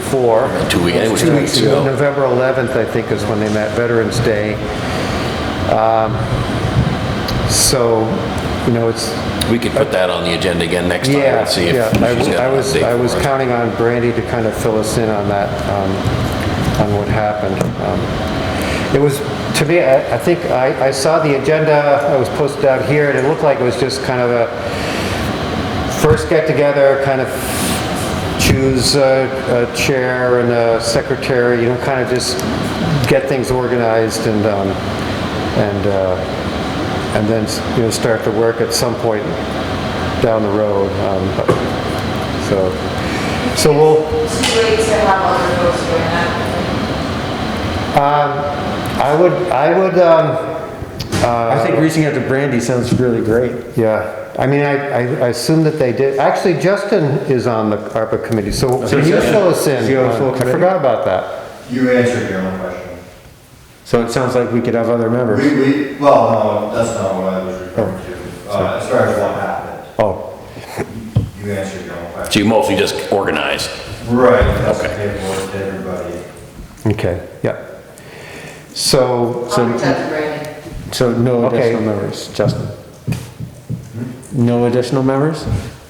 before. Two weeks- I think it was Two two weeks weeks ago. ago. November 11th, I think, is when they met, Veterans Day. Um, So, you know, it's, We could put that on the agenda again next time yeah, and see if yeah. I she's w- got I an was, update I was for us. counting on Brandy to kind of fill us in on that, um, on what happened. Um, It was, to me, I I think, I I saw the agenda, I was posted out here, and it looked like it was just kind of a first get-together, kind of choose a a chair and a secretary, you know, kind of just get things organized and, um, and, uh, and then, you know, start to work at some point down the road. um, but- So, so we'll, It's too late to have other folks doing that. I would, I would, um, I Uh, think reaching out to Brandy sounds really great. Yeah, I mean, I, I I assume that they did, actually, Justin is on the ARPA committee, so can you fill us Is in? he on the full I committee? forgot about that. You answered your own question. So it sounds like we could have other members. We, we, well, no, that's not what I was referring to. Uh, as far as what happened, Oh, you answered your own So question. you mostly just organized. Right, that's the Okay. paperwork to everybody. okay, yeah. So, Um, I'll reach out to Brandon. So no Okay. additional members, Justin. No additional members?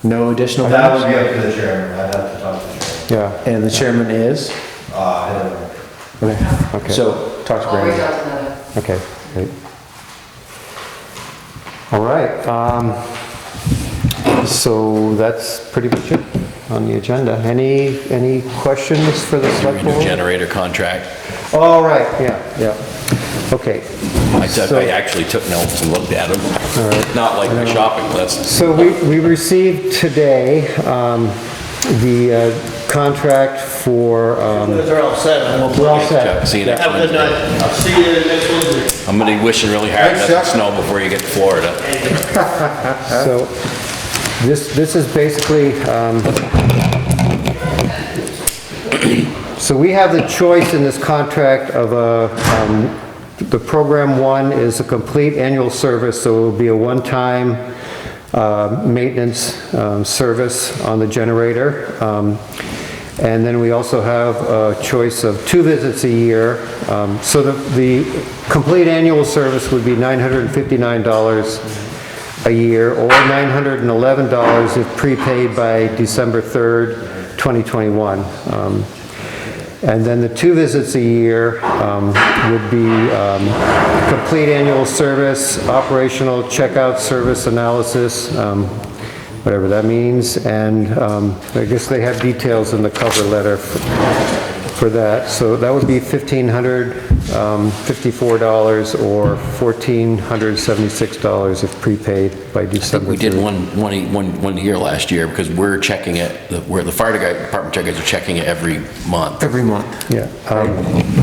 No additional That would members? be up to the chairman, I'd have to talk to the chairman. yeah, And the chairman is? Uh, I don't know. Okay. okay. So talk to I'll reach Brandy. out to them. Okay, great. All right, um, so that's pretty much it on the agenda. Any, any questions for the select New board? generator contract. All right, yeah, yeah, okay. I took, So- I actually took notes and looked at them. Not like my shopping list. So we, we received today, um, the uh, contract for, um, Those are all set. I'm we're all Chuck, set. See you next Have a good Wednesday. night. I'll see you next Wednesday. I'm gonna be wishing really hard it doesn't snow before you get to Florida. So this, this is basically, um, so we have the choice in this contract of a, um, the program one is a complete annual service, so it will be a one-time uh, maintenance um, service on the generator. Um, And then we also have a choice of two visits a year. Um, So the, the complete annual service would be $959 a year, or $911 if prepaid by December 3rd, 2021. Um, And then the two visits a year um, would be um, complete annual service, operational checkout service analysis, um, whatever that means, and um, I guess they have details in the cover letter for that. So that would be $1,554 or $1,476 if prepaid by December. We did 3rd. one, one, one, one year last year because we're checking it, the- where the fire department checkers are checking it every month. Every month. Yeah. um,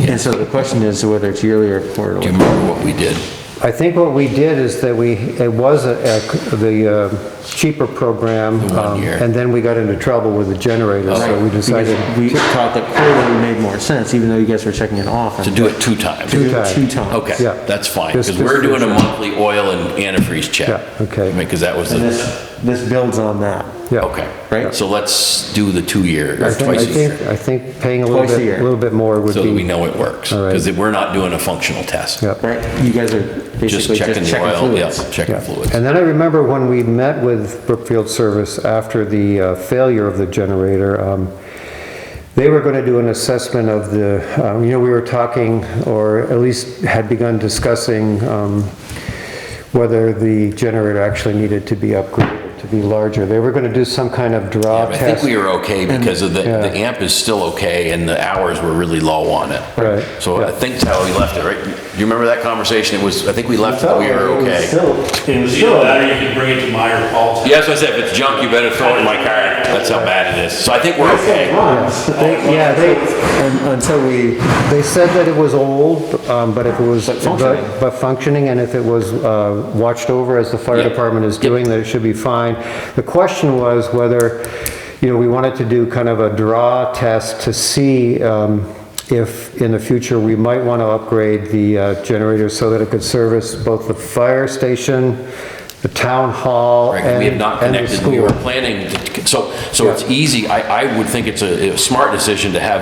And so the question is whether it's yearly or Do you quarterly. remember what we did? I think what we did is that we, it was a- a- the uh, cheaper program. The one um, year. And then we got into trouble with the generator, so we decided Because We thought that quarterly made more sense, even though you guys were checking it off. To do it two times? Two times. Two times. Okay, Yeah. that's fine, This- because this we're doing a version. monthly oil and antifreeze check. Yeah, okay. Because that was And the, this, this builds on that. Yeah. okay. Right. So let's do the two-year, I or think, I twice a think, year, I think paying a little Twice a bit, year. a little bit more would so that we be, know it works. All right. Because we're not doing a functional test. yeah. Right? You guys are Just basically checking just the checking oil, yeah, fluids. checking Yeah. fluids. And then I remember when we met with Brookfield Service after the uh, failure of the generator, um, they were going to do an assessment of the, um, you know, we were talking, or at least had begun discussing um, whether the generator actually needed to be upgraded, to be larger. They were going to do some kind of draw I think test. we were okay because of the, Yeah. the amp is still okay and the hours were really low on it. Right, So yeah. I think that's how we left it, right? Do you remember that conversation? It was, I think we left that Oh, we were okay. It was either that or you could bring it to Meyer Paul's. Yeah, that's what I said, if it's junk, you better throw it in my car. That's how bad it is. So I think we're okay. Yeah, they, Until we, They said that it was old, um, but if it was... But functioning. But functioning, and if it was uh, watched over as the fire Yeah. department is doing, that it should be fine. The question was whether, you know, we wanted to do kind of a draw test to see um, if in the future we might want to upgrade the uh, generator so that it could service both the fire station, the town hall Right, 'cause and we have not and the connected, we were school. planning, to- so, so it's easy, I, I would think it's a a smart decision to have